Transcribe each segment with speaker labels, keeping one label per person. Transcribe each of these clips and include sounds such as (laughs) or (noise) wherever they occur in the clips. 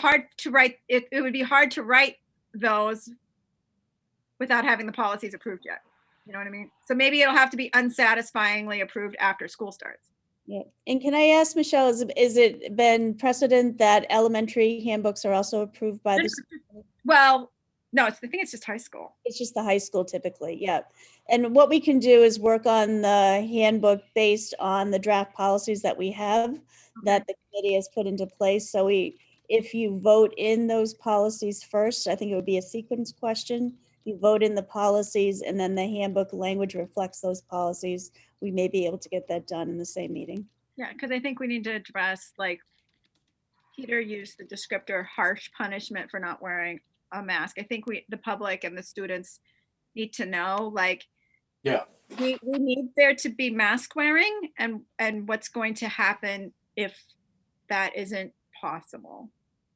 Speaker 1: hard to write, it, it would be hard to write those without having the policies approved yet. You know what I mean? So maybe it'll have to be unsatisfyingly approved after school starts.
Speaker 2: Yeah, and can I ask, Michelle, is, is it been precedent that elementary handbooks are also approved by the, s-
Speaker 1: Well, no, it's, I think it's just high school.
Speaker 2: it's just the high school typically, yeah. And what we can do is work on the handbook based on the draft policies that we have that the committee has put into place, so we, if you vote in those policies first, I think it would be a sequence question. You vote in the policies and then the handbook language reflects those policies, we may be able to get that done in the same meeting.
Speaker 1: Yeah, because I think we need to address, like, Peter used the descriptor harsh punishment for not wearing a mask. I think we, the public and the students need to know, like,
Speaker 3: Yeah.
Speaker 1: we, we need there to be mask wearing and, and what's going to happen if that isn't possible.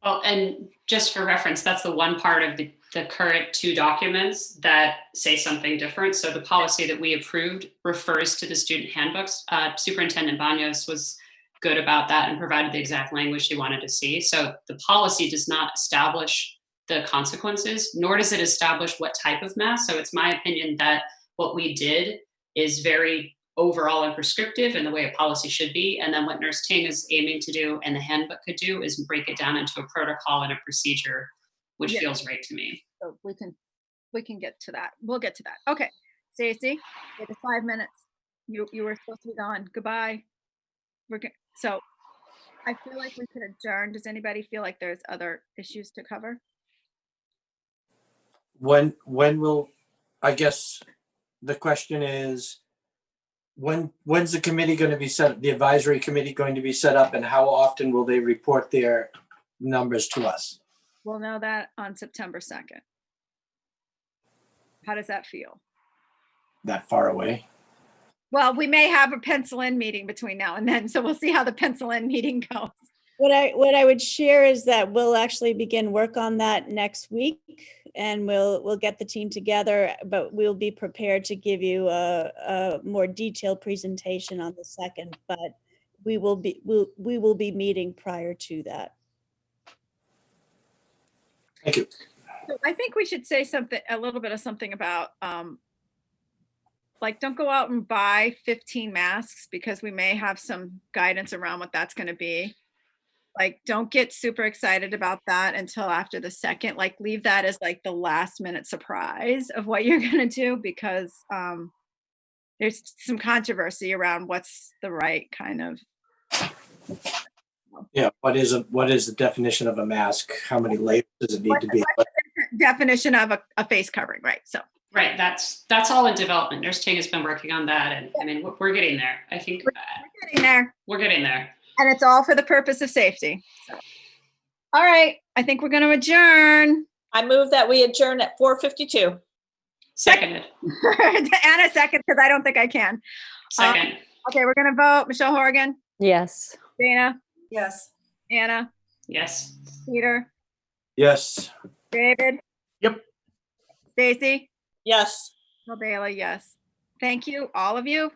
Speaker 4: Well, and just for reference, that's the one part of the, the current two documents that say something different. So the policy that we approved refers to the student handbooks. Uh, Superintendent Banyos was good about that and provided the exact language she wanted to see. So the policy does not establish the consequences, nor does it establish what type of mask. So it's my opinion that what we did is very overall and prescriptive in the way a policy should be. And then what Nurse Ting is aiming to do and the handbook could do is break it down into a protocol and a procedure, which
Speaker 1: Yeah.
Speaker 4: feels right to me.
Speaker 1: So we can, we can get to that. We'll get to that. Okay. Stacy, you have five minutes. You, you were supposed to be gone. Goodbye. We're good. So I feel like we could adjourn. Does anybody feel like there's other issues to cover?
Speaker 3: When, when will, I guess, the question is, when, when's the committee going to be set, the advisory committee going to be set up and how often will they report their numbers to us?
Speaker 1: We'll know that on September 2nd. How does that feel?
Speaker 3: That far away?
Speaker 1: Well, we may have a pencil in meeting between now and then, so we'll see how the pencil in meeting (laughs) goes.
Speaker 2: What I, what I would share is that we'll actually begin work on that next week and we'll, we'll get the team together, but we'll be prepared to give you a, a more detailed presentation on the second, but we will be, we'll, we will be meeting prior to that.
Speaker 3: Thank you.
Speaker 1: So I think we should say something, a little bit of something about, um, like, don't go out and buy fifteen masks because we may have some guidance around what that's gonna be. Like, don't get super excited about that until after the second, like, leave that as like the last minute surprise of what you're (laughs) gonna do because, um, there's some controversy around what's the right kind of,
Speaker 3: Yeah, what is, a what is the definition of a mask? How many layers does it need to be?
Speaker 1: definition of a, a face covering, right? So.
Speaker 4: Right, that's, that's all in development. Nurse Ting has been working on that and I mean, we're, we're getting there. I think uh,
Speaker 1: we're getting there.
Speaker 4: we're getting there.
Speaker 1: And it's all for the purpose of safety. so. All right, I think we're going to adjourn. (laughs)
Speaker 5: I move that we adjourn at four fifty-two.
Speaker 4: Seconded,
Speaker 1: Anna second, because I don't think I can.
Speaker 4: second,
Speaker 1: Okay, we're going to vote. Michelle Horgan,
Speaker 6: Yes.
Speaker 1: Dana,
Speaker 5: Yes.
Speaker 1: Anna,
Speaker 4: yes.
Speaker 1: Peter,
Speaker 3: Yes,
Speaker 1: David.
Speaker 3: Yep.
Speaker 1: Stacy,
Speaker 5: Yes.
Speaker 1: Bill Bailey, yes. Thank you, all of you.